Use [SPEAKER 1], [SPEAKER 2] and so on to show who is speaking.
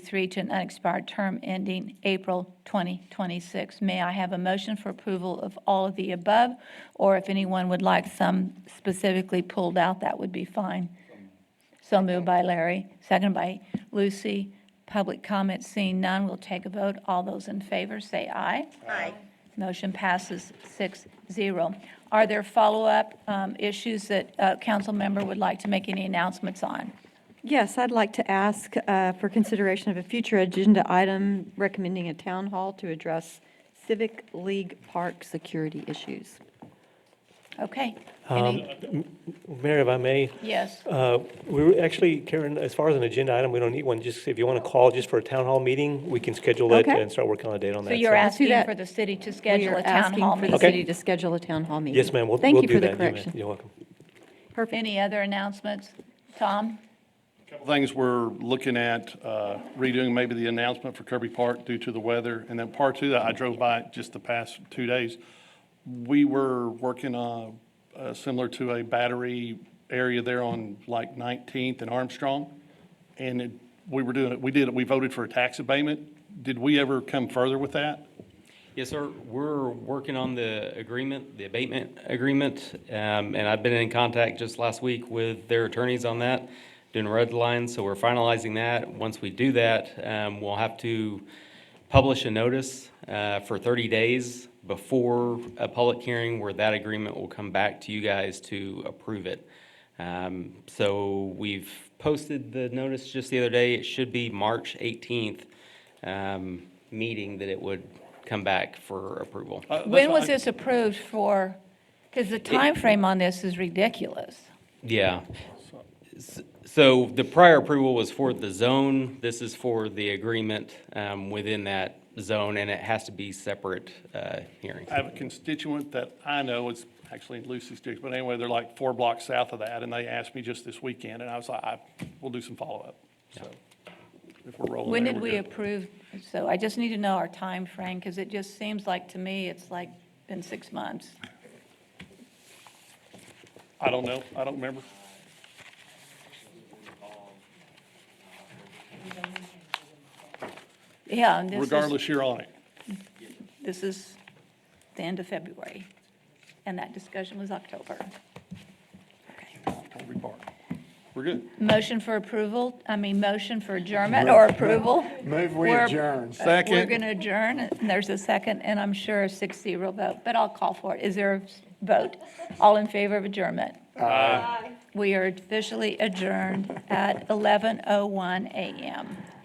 [SPEAKER 1] 2023 to an unexpired term ending April 2026. May I have a motion for approval of all of the above? Or if anyone would like some specifically pulled out, that would be fine. So moved by Larry, seconded by Lucy. Public comment seeing none, we'll take a vote. All those in favor, say aye.
[SPEAKER 2] Aye.
[SPEAKER 1] Motion passes 6-0. Are there follow-up um, issues that a council member would like to make any announcements on?
[SPEAKER 3] Yes, I'd like to ask uh, for consideration of a future agenda item recommending a town hall to address Civic League Park security issues.
[SPEAKER 1] Okay. Any-
[SPEAKER 4] Mayor, if I may,
[SPEAKER 1] Yes,
[SPEAKER 4] uh, we were actually, Karen, as far as an agenda item, we don't need one. Just if you want to call just for a town hall meeting, we can schedule it
[SPEAKER 3] Okay.
[SPEAKER 4] and start working on a date on that.
[SPEAKER 1] so you're
[SPEAKER 3] Let's do
[SPEAKER 1] asking
[SPEAKER 3] that.
[SPEAKER 1] for the city to
[SPEAKER 3] We
[SPEAKER 1] schedule
[SPEAKER 3] are
[SPEAKER 1] a town hall
[SPEAKER 3] Asking for the
[SPEAKER 1] meeting?
[SPEAKER 4] Okay.
[SPEAKER 3] city to schedule a town hall meeting.
[SPEAKER 4] Yes, ma'am, we'll,
[SPEAKER 3] Thank
[SPEAKER 4] we'll
[SPEAKER 3] you
[SPEAKER 4] do
[SPEAKER 3] for
[SPEAKER 4] that.
[SPEAKER 3] the
[SPEAKER 4] You may-
[SPEAKER 3] correction.
[SPEAKER 4] You're welcome.
[SPEAKER 3] Perfect.
[SPEAKER 1] Any other announcements? Tom?
[SPEAKER 5] Couple Things we're looking at uh, redoing, maybe the announcement for Kirby Park due to the weather. And then part two, I drove by it just the past two days. We were working uh, uh, similar to a battery area there on like 19th and Armstrong. And it- we were doing, we did, we voted for a tax abatement. Did we ever come further with that?
[SPEAKER 6] Yes, sir. We're working on the agreement, the abatement agreement, um, and I've been in contact just last week with their attorneys on that, doing red lines, so we're finalizing that. Once we do that, um, we'll have to publish a notice uh, for 30 days before a public hearing where that agreement will come back to you guys to approve it. Um, So we've posted the notice just the other day. It should be March 18th um, meeting that it would come back for approval.
[SPEAKER 5] Uh, that's
[SPEAKER 1] When
[SPEAKER 5] what
[SPEAKER 1] was
[SPEAKER 5] I-
[SPEAKER 1] this approved for? Because the time frame on this is ridiculous.
[SPEAKER 6] Yeah. S- So the prior approval was for the zone. This is for the agreement um, within that zone, and it has to be separate uh, hearings.
[SPEAKER 5] I have a constituent that I know, it's actually in Lucy's district, but anyway, they're like four blocks south of that, and they asked me just this weekend, and I was like, I, we'll do some follow-up, so. If we're rolling
[SPEAKER 1] When
[SPEAKER 5] there,
[SPEAKER 1] did
[SPEAKER 5] we're
[SPEAKER 1] we
[SPEAKER 5] good.
[SPEAKER 1] approve? So I just need to know our time frame because it just seems like, to me, it's like been six months.
[SPEAKER 5] I don't know, I don't remember.
[SPEAKER 1] Yeah, and this is,
[SPEAKER 5] Regardless, you're on it.
[SPEAKER 1] this is the end of February, and that discussion was October.
[SPEAKER 5] Don't be barred. We're good.
[SPEAKER 1] Motion for approval, I mean, motion for adjournment or approval?
[SPEAKER 7] Move we
[SPEAKER 1] We're-
[SPEAKER 7] adjourn.
[SPEAKER 1] uh, We're
[SPEAKER 5] Second.
[SPEAKER 1] going to adjourn, and there's a second, and I'm sure a six-zero vote, but I'll call for it. Is there a s- vote? All in favor of adjournment? oh We are officially adjourned at 11:01 a.m.